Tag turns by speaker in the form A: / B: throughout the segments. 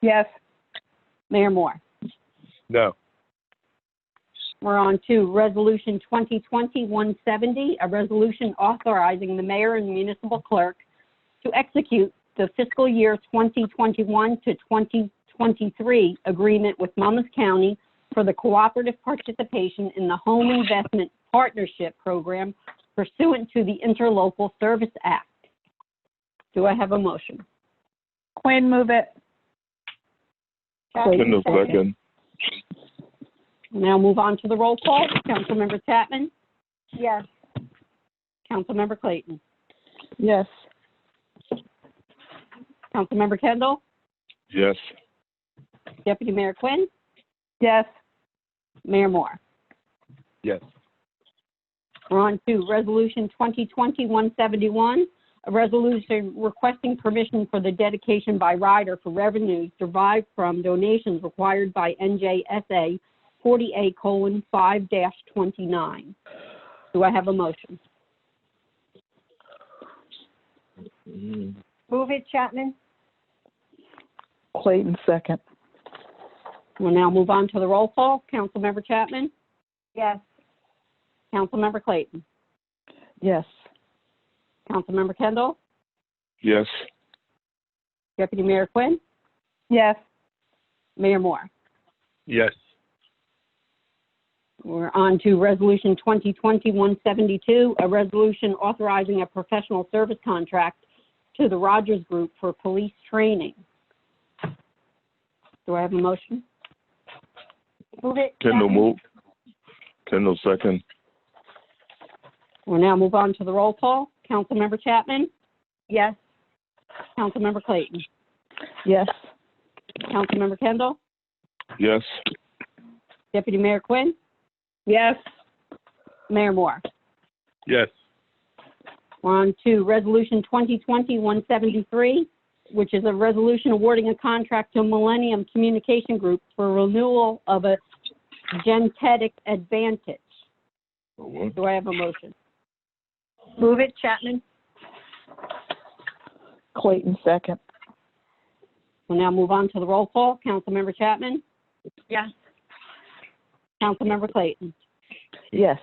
A: Yes. Mayor Moore.
B: No.
A: We're on to Resolution 2020-170, a resolution authorizing the mayor and municipal clerk to execute the fiscal year 2021 to 2023 agreement with Monmouth County for the cooperative participation in the Home Investment Partnership Program pursuant to the Interlocal Service Act. Do I have a motion?
C: Quinn, move it.
D: Oh,
B: Kendall second.
A: Now move on to the roll call. Councilmember Chapman?
C: Yes.
A: Councilmember Clayton?
C: Yes.
A: Councilmember Kendall?
B: Yes.
A: Deputy Mayor Quinn,
C: Yes.
A: Mayor Moore.
B: Yes.
A: We're on to Resolution 2020-171, a resolution requesting permission for the dedication by rider for revenues derived from donations required by NJSA 40A:5-29. Do I have a motion?
B: Mm-hmm.
C: Move it, Chapman. Clayton, second.
A: We'll now move on to the roll call. Councilmember Chapman,
C: Yes.
A: Councilmember Clayton,
C: Yes.
A: Councilmember Kendall,
B: Yes.
A: Deputy Mayor Quinn,
C: Yes.
A: Mayor Moore.
B: Yes.
A: We're on to Resolution 2020-172, a resolution authorizing a professional service contract to the Rogers Group for police training. Do I have a motion?
C: Move it.
B: Kendall move. Kendall second.
A: We'll now move on to the roll call. Councilmember Chapman,
C: Yes.
A: Councilmember Clayton,
C: Yes.
A: Councilmember Kendall,
B: Yes.
A: Deputy Mayor Quinn,
C: Yes.
A: Mayor Moore.
B: Yes.
A: We're on to Resolution 2020-173, which is a resolution awarding a contract to Millennium Communication Group for renewal of a Gentetic Advantage.
B: What?
A: Do I have a motion?
C: Move it, Chapman. Clayton, second.
A: We'll now move on to the roll call. Councilmember Chapman?
C: Yes.
A: Councilmember Clayton?
C: Yes.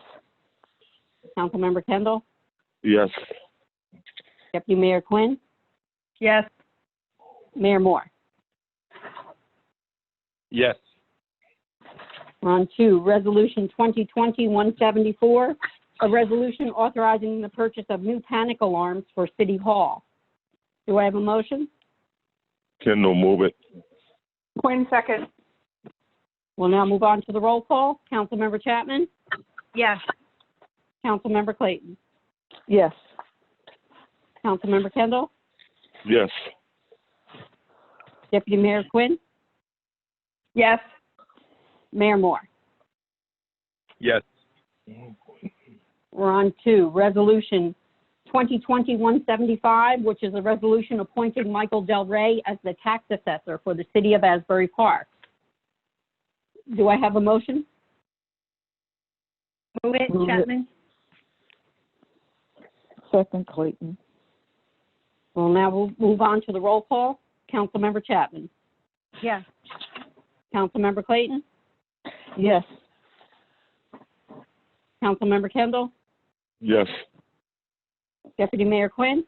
A: Councilmember Kendall?
B: Yes.
A: Deputy Mayor Quinn?
C: Yes.
A: Mayor Moore?
B: Yes.
A: We're on to Resolution 2020-174, a resolution authorizing the purchase of new panic alarms for City Hall. Do I have a motion?
B: Kendall move it.
C: Quinn, second.
A: We'll now move on to the roll call. Councilmember Chapman?
C: Yes.
A: Councilmember Clayton?
C: Yes.
A: Councilmember Kendall?
B: Yes.
A: Deputy Mayor Quinn?
C: Yes.
A: Mayor Moore?
B: Yes.
A: We're on to Resolution 2020-175, which is a resolution appointing Michael Del Rey as the tax assessor for the city of Asbury Park. Do I have a motion?
C: Move it, Chapman. Second, Clayton.
A: Well, now we'll move on to the roll call. Councilmember Chapman?
C: Yes.
A: Councilmember Clayton?
C: Yes.
A: Councilmember Kendall?
B: Yes.
A: Deputy Mayor Quinn?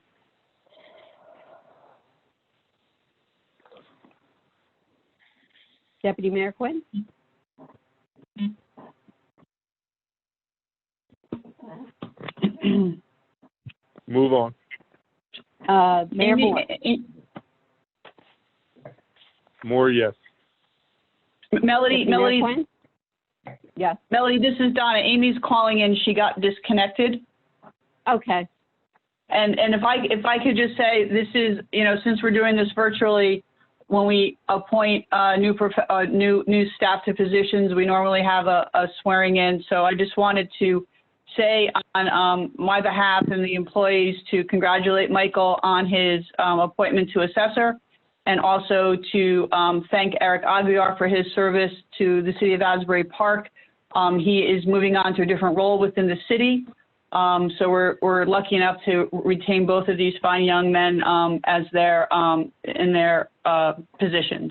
A: Deputy Mayor Quinn?
B: Move on.
A: Uh, Mayor
D: Amy-
C: eh,
A: Moore?
B: More yes.
D: Melody,
A: Deputy Mayor
D: Melody,
A: Quinn? Yes,
D: Melody, this is Donna. Amy's calling in. She got disconnected.
A: okay.
D: And, and if I, if I could just say, this is, you know, since we're doing this virtually, when we appoint, uh, new prof, uh, new, new staff to positions, we normally have a, a swearing in. So I just wanted to say on, um, my behalf and the employees to congratulate Michael on his, um, appointment to assessor. And also to, um, thank Eric Aguirre for his service to the city of Asbury Park. Um, he is moving on to a different role within the city. Um, so we're, we're lucky enough to retain both of these fine young men um, as their um, in their uh, positions.